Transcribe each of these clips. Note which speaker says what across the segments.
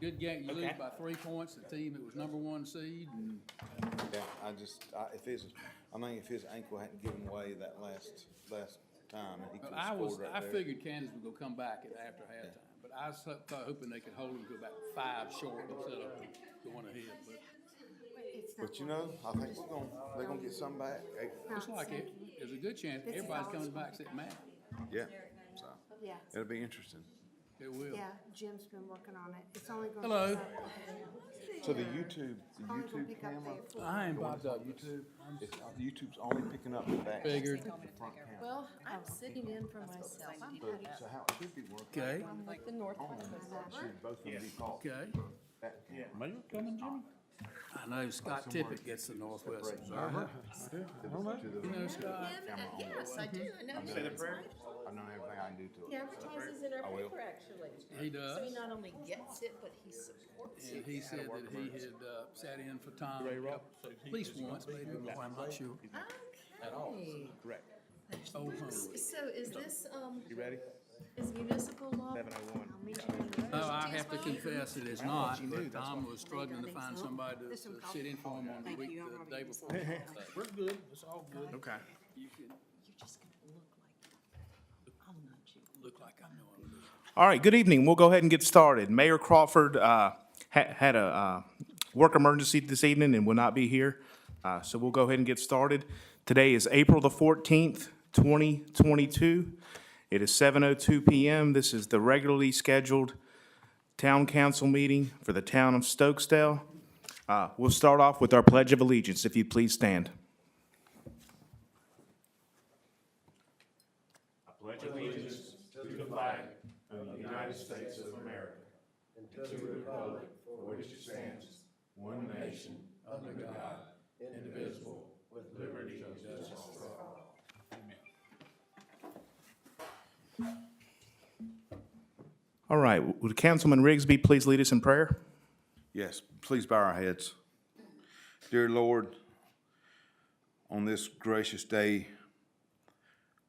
Speaker 1: Good game, you lose
Speaker 2: Okay.
Speaker 1: by three points, the team that was number one seed, and
Speaker 3: Yeah, I just, I, if his, I mean, if his ankle hadn't given way that last, last time, and he
Speaker 1: but
Speaker 3: could
Speaker 1: I
Speaker 3: have
Speaker 1: was,
Speaker 3: scored right
Speaker 1: I
Speaker 3: there.
Speaker 1: figured Kansas would go come back at after halftime. But I was ho- thought- hoping they could hold them to about five short instead of going ahead, but
Speaker 4: It's not
Speaker 3: But you
Speaker 4: like-
Speaker 3: know, I think we're gonna, they're gonna get some back. Hey,
Speaker 1: it's
Speaker 4: not
Speaker 1: like it,
Speaker 4: second.
Speaker 1: there's a good chance
Speaker 4: This is
Speaker 1: everybody's
Speaker 4: always
Speaker 1: coming back
Speaker 4: one.
Speaker 1: except Matt.
Speaker 3: Yeah, so,
Speaker 4: Yeah,
Speaker 3: it'll be interesting.
Speaker 1: It will.
Speaker 4: yeah, Jim's been working on it. It's only going.
Speaker 1: Hello.
Speaker 3: So the YouTube, the
Speaker 4: Only gonna
Speaker 3: YouTube
Speaker 4: pick up
Speaker 3: camera,
Speaker 4: there for.
Speaker 1: I am
Speaker 3: the one
Speaker 1: Bob
Speaker 3: that's on
Speaker 1: Douglas.
Speaker 3: YouTube, it's, YouTube's only picking up the back.
Speaker 1: Figured.
Speaker 3: the front camera.
Speaker 5: Well, I'm sitting in for myself. I'm
Speaker 3: So,
Speaker 5: happy.
Speaker 3: so how it should be working.
Speaker 1: Okay,
Speaker 5: I'm like the north.
Speaker 3: On, should both of them be caught.
Speaker 1: okay.
Speaker 3: That camera.
Speaker 2: Are you coming, Jimmy?
Speaker 1: I know Scott Tippett gets the Northwest Observer.
Speaker 3: To the-
Speaker 1: You know Scott?
Speaker 5: Yes, I
Speaker 1: Mm-hmm.
Speaker 5: do. I know.
Speaker 2: Say the
Speaker 5: him.
Speaker 2: prayer.
Speaker 3: I know everything I can do to
Speaker 5: He
Speaker 3: it.
Speaker 5: advertises in our
Speaker 3: I will.
Speaker 5: paper, actually.
Speaker 1: He
Speaker 5: So he
Speaker 1: does.
Speaker 5: not only gets it, but he supports
Speaker 1: And
Speaker 5: it.
Speaker 1: he said that he had uh, sat in for Tom a couple- at least once, maybe more, I'm not sure.
Speaker 5: Okay.
Speaker 2: Correct.
Speaker 1: Oh, huh.
Speaker 5: So is this, um,
Speaker 2: You ready?
Speaker 5: is municipal law?
Speaker 2: Seven oh one.
Speaker 1: No, I have to confess it is not, but Tom was struggling to find somebody to to sit in for him on the
Speaker 4: Thank
Speaker 1: week,
Speaker 4: you, I'm
Speaker 1: the day
Speaker 4: already-
Speaker 1: before.
Speaker 2: We're good. It's all good. Okay.
Speaker 1: You can
Speaker 5: You're just gonna look like, I'll nudge you.
Speaker 1: look like I know him.
Speaker 2: All right, good evening. We'll go ahead and get started. Mayor Crawford uh, ha- had a uh, work emergency this evening and will not be here, Uh, so we'll go ahead and get started. Today is April the 14th, 2022. It is 7:02 PM. This is the regularly scheduled town council meeting for the town of Stokesdale. Uh, We'll start off with our pledge of allegiance, if you please stand. All right, would Councilman Rigsby please lead us in prayer?
Speaker 3: Yes, please bow our heads. Dear Lord, on this gracious day,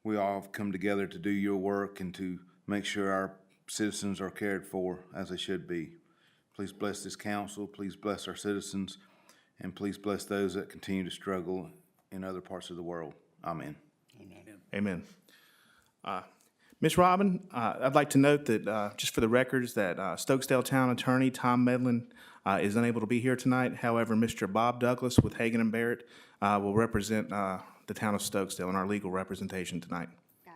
Speaker 3: we all have come together to do your work and to make sure our citizens are cared for as they should be. Please bless this council, please bless our citizens, and please bless those that continue to struggle in other parts of the world. Amen.
Speaker 2: Amen. Uh, Ms. Robin, uh, I'd like to note that, uh, just for the records, that uh, Stokesdale Town Attorney Tom Medlin uh, is unable to be here tonight. However, Mr. Bob Douglas with Hagan and Barrett uh, will represent uh, the town of Stokesdale in our legal representation tonight.
Speaker 4: Got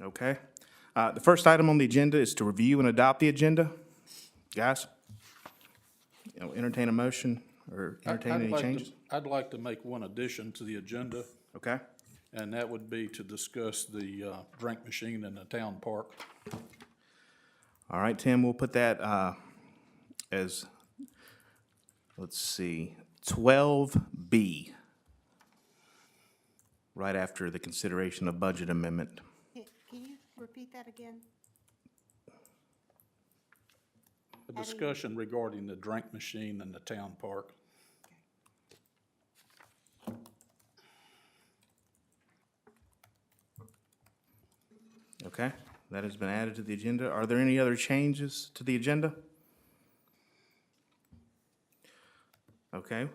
Speaker 4: it.
Speaker 2: Okay? Uh, The first item on the agenda is to review and adopt the agenda. Guys? you know, Entertain a motion or
Speaker 6: I-
Speaker 2: entertain
Speaker 6: I'd
Speaker 2: any
Speaker 6: like to-
Speaker 2: changes?
Speaker 6: I'd like to make one addition to the agenda,
Speaker 2: Okay?
Speaker 6: and that would be to discuss the uh, drink machine in the town park.
Speaker 2: All right, Tim, we'll put that uh, as, let's see, 12B, right after the consideration of budget amendment.
Speaker 4: Can- Can you repeat that again?
Speaker 6: A discussion regarding the drink machine in the town park.
Speaker 2: Okay, that has been added to the agenda. Are there any other changes to the agenda? Okay,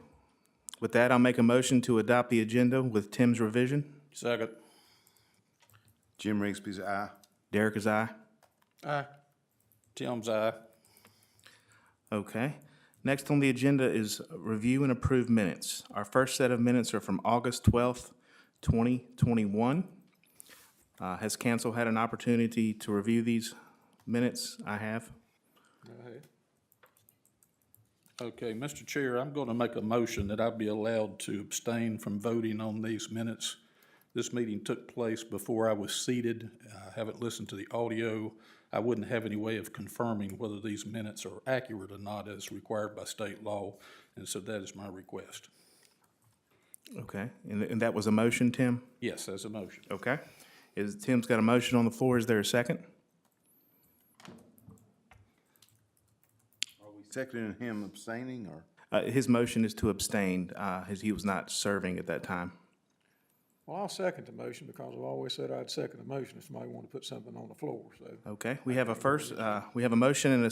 Speaker 2: with that, I'll make a motion to adopt the agenda with Tim's revision.
Speaker 6: Second.
Speaker 3: Jim Rigsby's aye.
Speaker 2: Derek is aye.
Speaker 6: Aye. Tim's aye.
Speaker 2: Okay. Next on the agenda is review and approve minutes. Our first set of minutes are from August twelfth, twenty twenty-one. Uh, has council had an opportunity to review these minutes? I have.
Speaker 6: Okay, Mr. Chair, I'm going to make a motion that I be allowed to abstain from voting on these minutes. This meeting took place before I was seated. I haven't listened to the audio. I wouldn't have any way of confirming whether these minutes are accurate or not as required by state law, and so that is my request.
Speaker 2: Okay, and, and that was a motion, Tim?
Speaker 6: Yes, as a motion.
Speaker 2: Okay. Is, Tim's got a motion on the floor. Is there a second?
Speaker 3: Seconding him abstaining or?
Speaker 2: Uh, his motion is to abstain, uh, as he was not serving at that time.
Speaker 7: Well, I'll second the motion because I've always said I'd second the motion if somebody wanted to put something on the floor, so.
Speaker 2: Okay, we have a first, uh, we have a motion and a